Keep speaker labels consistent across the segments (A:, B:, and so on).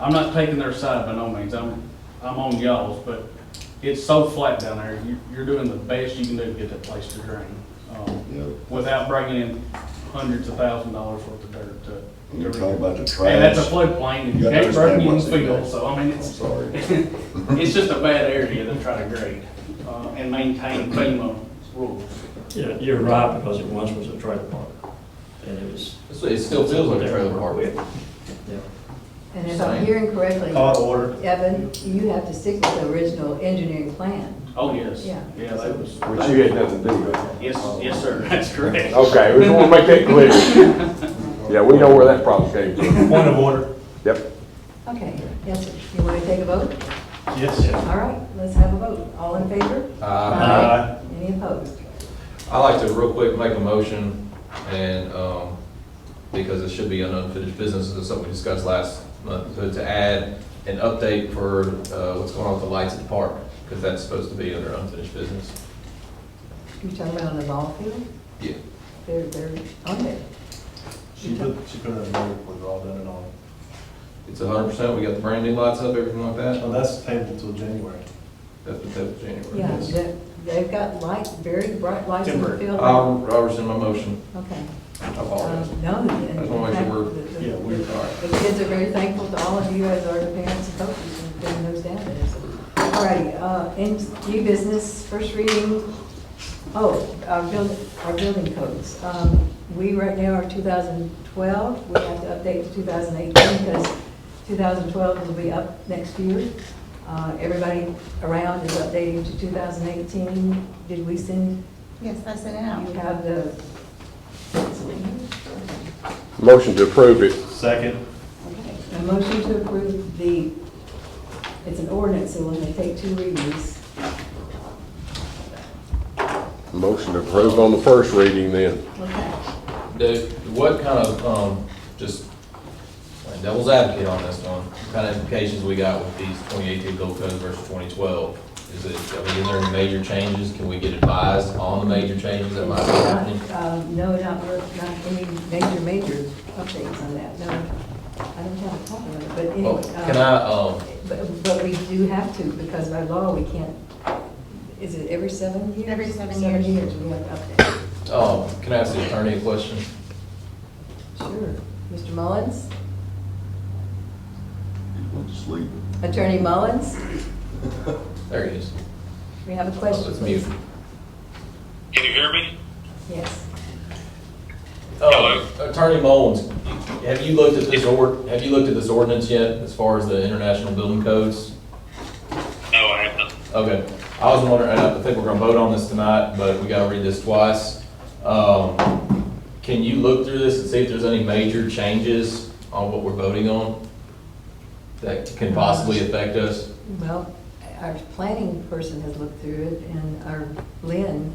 A: I'm not taking their side by no means, I'm, I'm on y'all's, but it's so flat down there, you, you're doing the best you can do to get that place to drain. um,
B: Yeah.
A: Without bringing in hundreds of thousand dollars worth of dirt to.
B: When You're talking about the trash.
A: And that's a floodplain, and you
B: You
A: can't break
B: understand
A: in
B: what's in
A: field,
B: there.
A: so I mean,
B: I'm
A: it's,
B: sorry.
A: it's just a bad area to try to grade, uh, and maintain FEMA rules.
C: Yeah, you're right, because it once was a trailer park, and it was.
D: It's- It still feels like a trailer park.
C: Yeah.
E: And if I'm hearing correctly,
F: Call to order.
E: Evan, you have to stick with the original engineering plan.
A: Oh, yes.
E: Yeah.
A: Yeah, that was,
F: Which you had nothing to do with.
A: yes, yes, sir, that's correct.
G: Okay, we just want to make that clear. Yeah, we know where that problem came from.
F: Point of order.
G: Yep.
E: Okay, yes, sir. You want to take a vote?
F: Yes.
E: All right, let's have a vote. All in favor?
D: Uh,
F: Aye.
E: Any opposed?
D: I like to real quick make a motion and, um, because it should be an unfinished business, it's something we discussed last month, to, to add an update for, uh, what's going on with the lights at the park, because that's supposed to be under unfinished business.
E: You talking about on the ball field?
D: Yeah.
E: They're, they're on there.
F: She put, she put it in the report, we're all done and all.
D: It's hundred percent, we got the brand new lights up, everything like
F: Well,
D: that.
F: that's table till January.
D: That's what that was January.
E: Yeah, they- they've got light, very bright lights in the
F: Timber.
E: field.
D: I'll, I'll rescind my motion.
E: Okay.
D: I
E: Um,
D: apologize.
E: No, and
D: As long as you were-
E: the- the-
F: Yeah, we're-
E: The kids are very thankful to all of you as are the parents and coaches and bringing those down there. so. All righty, uh, in new business, first reading, oh, our building, our building codes. Um, We right now are 2012, we have to update to 2018 because 2012 will be up next year. Uh, Everybody around is updating to 2018. Did we send,
H: Yes, I sent it
E: you
H: out.
E: have the,
G: Motion to approve it.
F: Second.
E: Okay, a motion to approve the, it's an ordinance, so when they take two readings,
G: Motion to approve on the first reading then.
E: okay.
D: The, what kind of, um, just like devil's advocate on this one, what kind of implications we got with these twenty eighteen gold codes versus twenty twelve? Is it, I mean, is there any major changes? Can we get advised on the major changes that might be happening?
E: Not, uh, No, not, worth- not any major, major updates on that, no. I don't have a problem with it, but
D: Well,
E: anyway. uh,
D: Oh, can I, um,
E: But, but we do have to, because by law, we can't, is it every seven years?
H: Every seven years.
E: Seven years, we have to update.
D: um, can I ask the attorney a question?
E: Sure. Mr. Mullins?
B: Went to sleep.
E: Attorney Mullins?
D: There he is. Oh,
E: We have a question.
D: It's mute.
I: Can you hear me?
E: Yes.
D: Um, Attorney Mullins, have you looked at this ord, have you looked at this ordinance yet as far as the international building codes?
I: No, I haven't.
D: Okay, I was wondering, and I think we're gonna vote on this tonight, but we gotta read this twice. Um, Can you look through this and see if there's any major changes on what we're voting on that can possibly affect us?
E: Well, our planning person has looked through it, and our Lynn,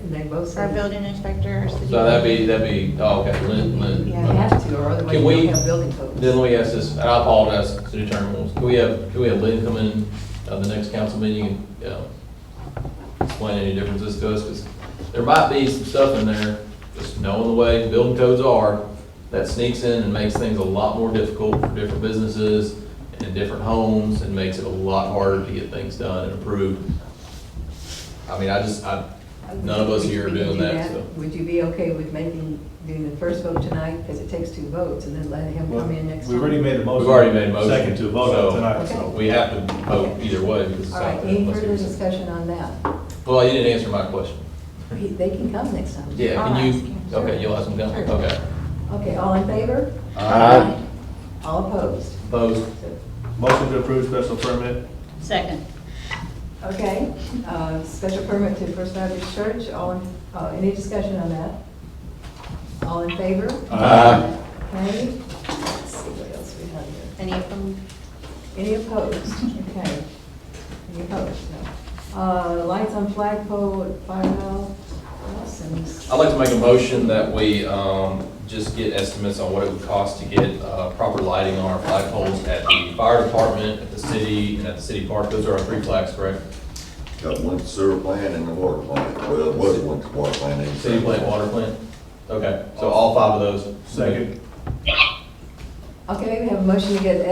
E: and they both
H: Our
E: said.
H: building inspector. our city-
D: So that'd be, that'd be, oh, okay, Lynn, Lynn.
E: You have to, or otherwise
D: Can
E: you
D: we-
E: don't have building codes.
D: Then let me ask this, and I apologize to the attorney, Williams. can we have, can we have Lynn come in uh, the next council meeting and uh, explain any differences to us? Because there might be some stuff in there, just knowing the way building codes are, that sneaks in and makes things a lot more difficult for different businesses and different homes and makes it a lot harder to get things done and approved. I mean, I just, I, none of us here are
E: We can
D: doing
E: do
D: that, so.
E: Would you be okay with making, doing the first vote tonight, because it takes two votes, and then letting him
F: Well,
E: come in next time?
F: We already made a motion.
D: We've already made a motion.
F: Second to vote
D: so
F: on tonight, so.
D: We have to vote either way because it's
E: All
D: not.
E: right, any further discussion on that?
D: Well, you didn't answer my question.
E: He- They can come next time.
D: Yeah,
H: I'll
D: can
H: ask
D: you,
H: him, sure.
D: okay, you'll ask him down,
E: Sure.
D: okay.
E: Okay, all in favor?
G: Aye.
E: All opposed?
D: Opposed?
E: So-
F: Motion to approve special permit.
H: Second.
E: Okay, uh, special permit to First Baptist Church, all, in- uh, any discussion on that? All in favor?
G: Aye.
E: Okay, let's see what else we have here.
H: Any of them?
E: Any opposed? Okay. Any opposed? No. Uh, Lights on flagpole at firehouse and
D: I'd like to make a motion that we, um, just get estimates on what it would cost to get, uh, proper lighting on our flagpoles at the fire department, at the city, and at the city park. Those are our three flags, correct?
B: Got one sewer plant and a water plant. Well, it was one water plant. and-
D: City plant, water plant? Okay, so all five of those.
F: Second.
E: Okay, we have a motion to get